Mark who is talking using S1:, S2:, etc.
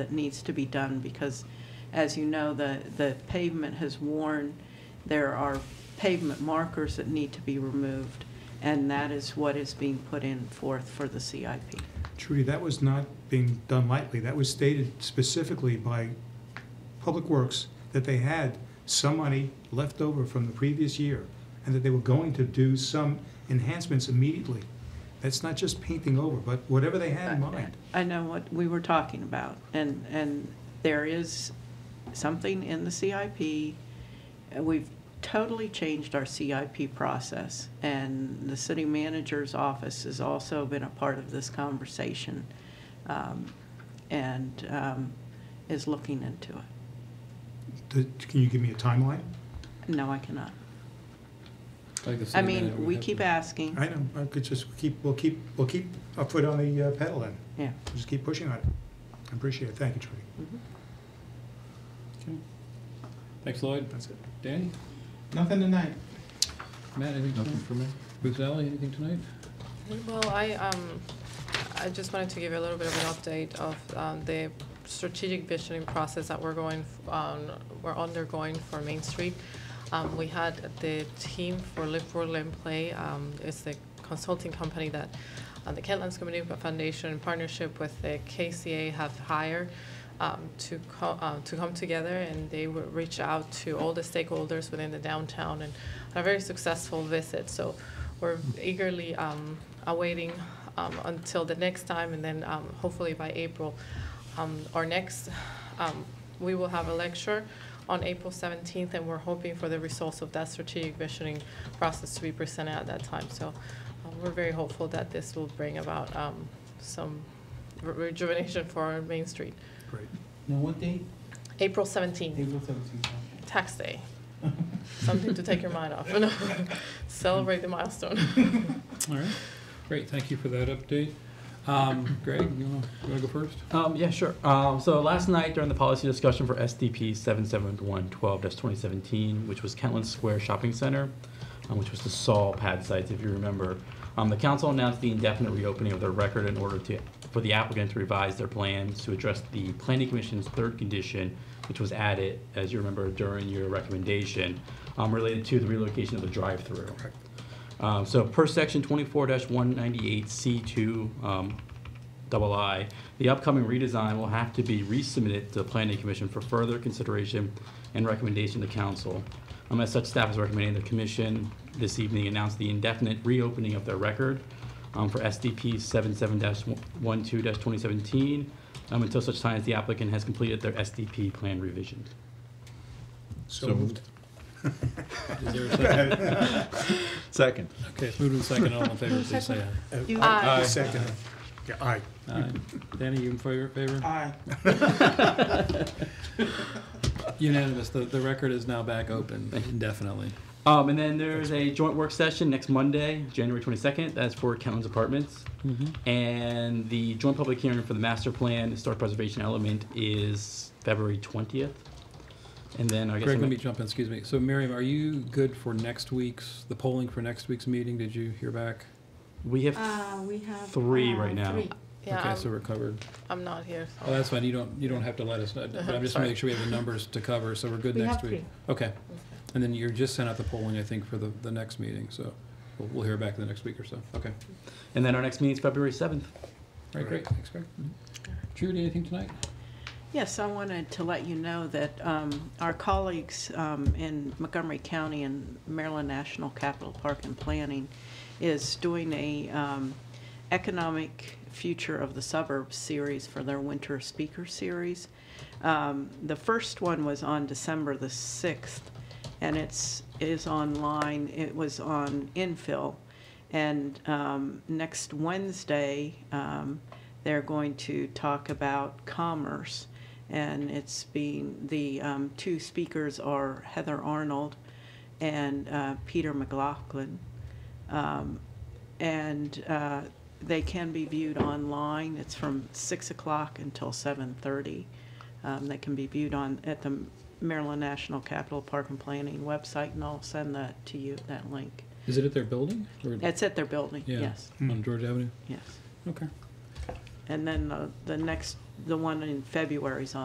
S1: that needs to be done because, as you know, the, the pavement has worn. There are pavement markers that need to be removed, and that is what is being put in forth for the CIP.
S2: Trudy, that was not being done lightly. That was stated specifically by Public Works that they had some money left over from the previous year and that they were going to do some enhancements immediately. That's not just painting over, but whatever they had in mind.
S1: uh, I know what we were talking about, and, and there is something in the CIP. and We've totally changed our CIP process, and the city manager's office has also been a part of this conversation um, and um, is looking into it.
S2: Th- Can you give me a timeline?
S1: No, I cannot.
S3: Like the
S1: I
S3: city manager
S1: mean,
S3: would
S1: we
S3: have
S1: keep
S3: to-
S1: asking,
S2: I know, I could just keep, we'll keep, we'll keep our foot on the uh, pedal then.
S1: yeah.
S2: Just keep pushing on it. I appreciate it. Thank you, Trudy.
S1: Mhm.
S3: Okay. Thanks, Lloyd.
S2: That's it.
S3: Danny?
S4: Nothing tonight.
S3: Matt, anything tonight for me? Bruce Alley, anything tonight?
S5: Well, I, um, I just wanted to give you a little bit of an update of, um, the strategic visioning process that we're going, f- on, we're undergoing for Main Street. Um, we had the team for Live, World, and Play, um, it's the consulting company that, uh, the Kentlands Community Foundation in partnership with the KCA have hired, um, to co- uh, to come together and they would reach out to all the stakeholders within the downtown and a very successful visit. So we're eagerly um, awaiting um, until the next time, and then um, hopefully by April, um, our next, um, we will have a lecture on April 17th, and we're hoping for the results of that strategic visioning process to be presented at that time. So um, we're very hopeful that this will bring about um, some re- rejuvenation for our Main Street.
S2: Great.
S4: No, what day?
S5: April 17th,
S4: April seventeenth.
S5: tax day. Something to take your mind off. No. Celebrate the milestone.
S3: All right. Great, thank you for that update. Um, Greg, you wanna, you wanna go first?
S6: Um, yeah, sure. Um, so last night during the policy discussion for SDP 77112-2017, which was Kentland Square Shopping Center, um, which was the Saul pad sites, if you remember, um, the council announced the indefinite reopening of their record in order to, for the applicant to revise their plans to address the planning commission's third condition, which was added, as you remember, during your recommendation, um, related to the relocation of the drive-through. Um, so per section twenty-four one ninety-eight C two, um, double I, the upcoming redesign will have to be resubmitted to the planning commission for further consideration and recommendation to council. Um, as such, staff is recommending the commission this evening announce the indefinite reopening of their record, um, for SDP 77 one twenty seventeen, um, until such time as the applicant has completed their SDP plan revision.
S3: So moved. Is there a second?
S6: Second.
S3: Okay, it's moved in second, all in favor, please say aye.
S2: Uh,
S1: You-
S5: Aye.
S2: I Second. Yeah, aye.
S3: Aye. Danny, you in favor? favor?
S4: Aye.
S3: Unanimous, the, the record is now back open indefinitely.
S6: Um, and then there's a joint work session next Monday, January twenty-second, that's for Kentland's Apartments. And the joint public hearing for the master plan, historic preservation element is February twentieth. And then I guess.
S3: Greg,
S6: I'm-
S3: let me jump in, excuse me. So Miriam, are you good for next week's, the polling for next week's meeting? Did you hear back?
S6: We have,
S7: Uh, we have.
S6: Three
S7: uh,
S6: right now.
S7: three.
S5: Yeah,
S3: Okay, so
S5: I'm-
S3: we're covered.
S5: I'm not here. so-
S3: Oh, that's fine, you don't, you don't have to let us know, but I'm just gonna make sure we have the numbers to cover, so we're good
S7: We
S3: next
S7: have
S3: week.
S7: three.
S3: Okay, and then you're just sent out the polling, I think, for the, the next meeting, so we'll, we'll hear back in the next week or so, okay.
S6: and then our next meeting's February seventh.
S3: All right, great, thanks, Greg. Judy, anything tonight?
S1: Yes, I wanted to let you know that um, our colleagues um, in Montgomery County and Maryland National Capital Park and Planning is doing a um, economic future of the suburbs series for their winter speaker series. Um, The first one was on December the 6th, and it's, is online, it was on Infill. And um, next Wednesday, um, they're going to talk about commerce. And it's being, the um, two speakers are Heather Arnold and uh, Peter McLaughlin. Um, and uh, they can be viewed online. It's from 6 o'clock until 7.30. Um, they can be viewed on at the Maryland National Capital Park and Planning website, and I'll send that to you, that link.
S3: Is it at their building? or-
S1: It's at their building,
S3: Yeah,
S1: yes,
S3: On George Avenue?
S1: yes.
S3: Okay.
S1: And then the, the next the one in February's on.